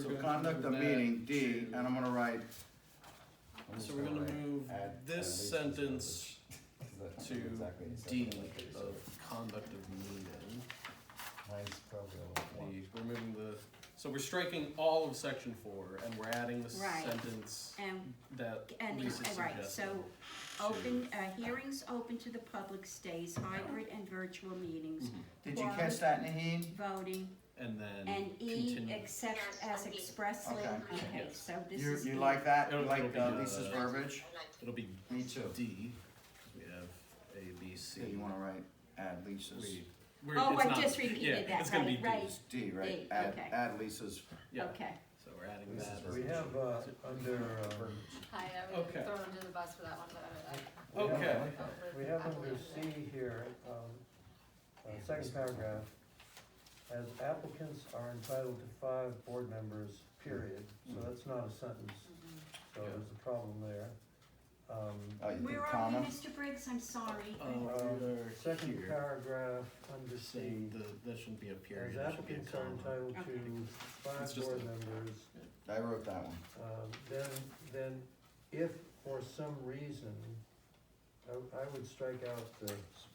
So conduct a meeting, D, and I'm gonna write, I'm just So we're gonna write move add this at least sentence because that's to exactly the same D thing that they of said. conduct of meeting. Mine's probably a little one. The, we're moving the, so we're striking all of section four and we're adding the Right. sentence And, that Um, Mm. and, Lisa uh, right, so suggested. open, uh, hearings open to the public stays, hybrid and virtual meetings, did you catch that, Naheen? voting, And then and E continue. except Yes, as indeed. expressly, Okay. okay, Yes. so this You, is. you E. like that, you It'll- like it'll uh, be, uh, Lisa's verbiage? it'll be Me too. D. We have A, B, C. So you wanna write, add Lisa's, We- we're- Oh, it's I not- just repeated yeah, that, It's gonna be right, D. right. it's D, right? D, Add, okay. add Lisa's, Yeah, Okay, so we're adding Lisa's that. version. We have, uh, under, um, Hi, I was Okay. thrown under the bus for that one, but I, I we have- Okay. felt with. We have I under believe it. C here, um, uh, second paragraph, as applicants are entitled to five board members, period, Mm-hmm. so that's not a sentence, so Yeah. there's a problem there. Um, oh, you where did are we, comma? Mr. Briggs, I'm sorry. Uh, we're Second here. paragraph, under Just C, saying, the, that shouldn't be a as period, that should be a applicants are comma. entitled to It's five just board a- members, I wrote that one. um, then, then if for some reason, I, I would strike out the, s-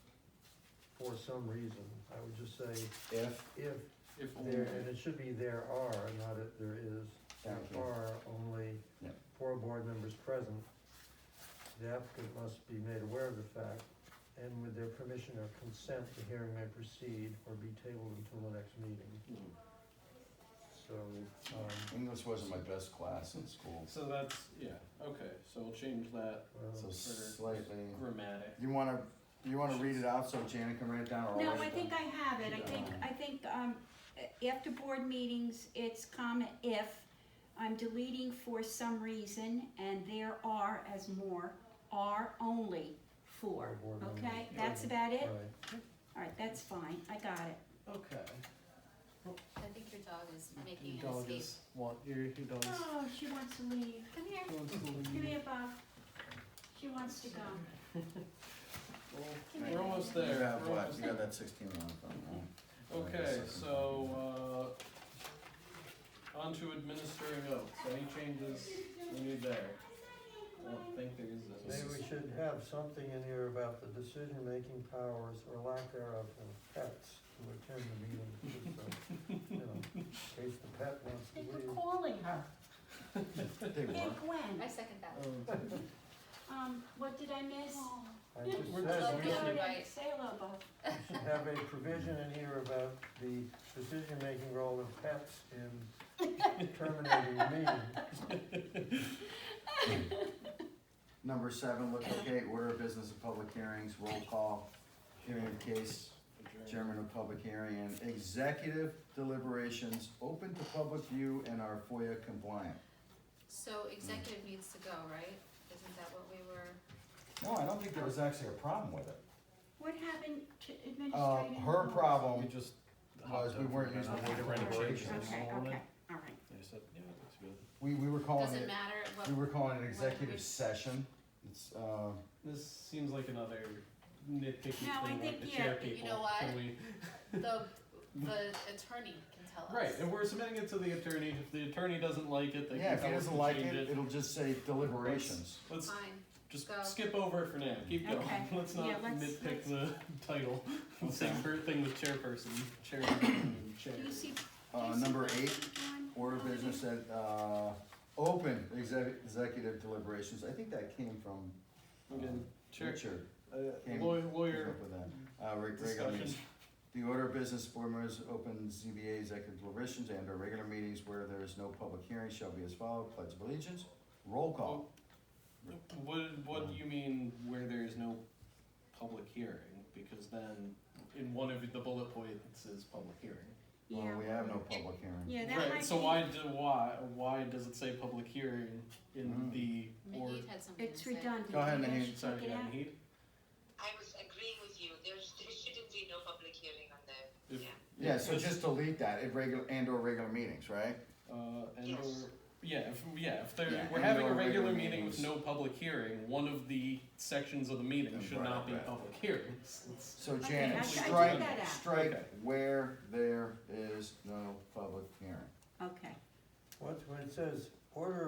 for some reason, I would just say, If, if If there, and it should be there are, not if there is, there Thank you. are only Yep. four board members present, the applicant must be made aware of the fact, and with their permission or consent, the hearing may proceed or be tabled until the next meeting, Hmm. so, um, English wasn't my best class in school, So that's, yeah, okay, so we'll change that so well, slightly, grammatic. you wanna, you wanna read it out so Janet can write it down or I'll No, write I it think down? I have it, I think, I think, um, a- after board meetings, it's comma if, I'm deleting for some reason, and there are as more, are only four, Four board okay? members. That's about it? right. Alright, that's fine, I got it. Okay. I think your dog is making Your an dog escape. is, want, your, your dog is. Oh, she wants to leave. Come here. wants to Give leave. me a buff. She wants to go. Well, We're almost You there. have we're what, almost you got that sixteen on the phone, right? Okay, so, uh, on to administering oaths, any changes we need there? I don't think there is any. Maybe we should have something in here about the decision-making powers or lack thereof of pets to attend the meeting. just so, you know, In case the pet wants to They were leave. calling her. uh, They Hey, were. Gwen, I second that. Um, um, what did I miss? I just We're said just- we should, Gloria, Say hello, Buff. we should have a provision in here about the decision-making role of pets in terminating the meeting. Number seven, look okay, order of business of public hearings, roll call, hearing of case, um, chairman of public hearing, and executive deliberations open to public view and are FOIA compliant. So executive needs to go, right? Isn't that what we were? No, I don't think there was actually a problem with it. What happened to Uh, administrative? her laws? We problem, just. Was hopped we over weren't and using I the didn't word write any changes Okay, on it. okay, all right. They said, yeah, it looks good. we, we were Oh, calling Doesn't it, matter what, we were calling it executive session, it's, uh, This seems like another nitpicky thing No, I like think, the yeah, chair you people. know what? Can we? the, the attorney can tell us. Right, and we're submitting it to the attorney. If the attorney doesn't like it, they yeah, can if tell he us doesn't to like change it, it'll just say deliberations. Let's Fine. just go. skip over it for now. Keep going. Okay, Let's not yeah, let's- nitpick let's- the title. Same per- thing with chairperson, chairman, and chair. Do you see, do Uh, you see number what eight, she's doing? Order of business at, uh, open exec- executive deliberations, I think that came from Again, chair, Richard. uh, came- lawyer, came lawyer up with that. Uh, reg- regular discussion. meetings. The order of business board members open ZBA executive deliberations and or regular meetings where there is no public hearing shall be as follows, pledge of allegiance, roll call. What, what do you mean where there is no public hearing? Because then, in one of the bullet points is public hearing. Well, Yeah. we have no public hearing. Yeah, that might Right, so be- why do, why, why does it say public hearing in Mm. the, or, Maybe it had something to It's say. redundant. Go ahead, Maybe I Naheem. should sorry, take it out. Naheed? I was agreeing with you. There's, there shouldn't be no public hearing on that. If- Yeah. Yeah, so just delete that, at regular, and or regular meetings, right? Uh, and or, Yes. yeah, if, yeah, if there, Yeah, we're and having a or regular regular meeting with meetings. no public hearing, one of the sections of the meeting should Right, not be right. public hearings. It's- So Okay, Janet, I- I took strike, that out. strike Okay. where there is no public hearing. Okay, What's, when it says order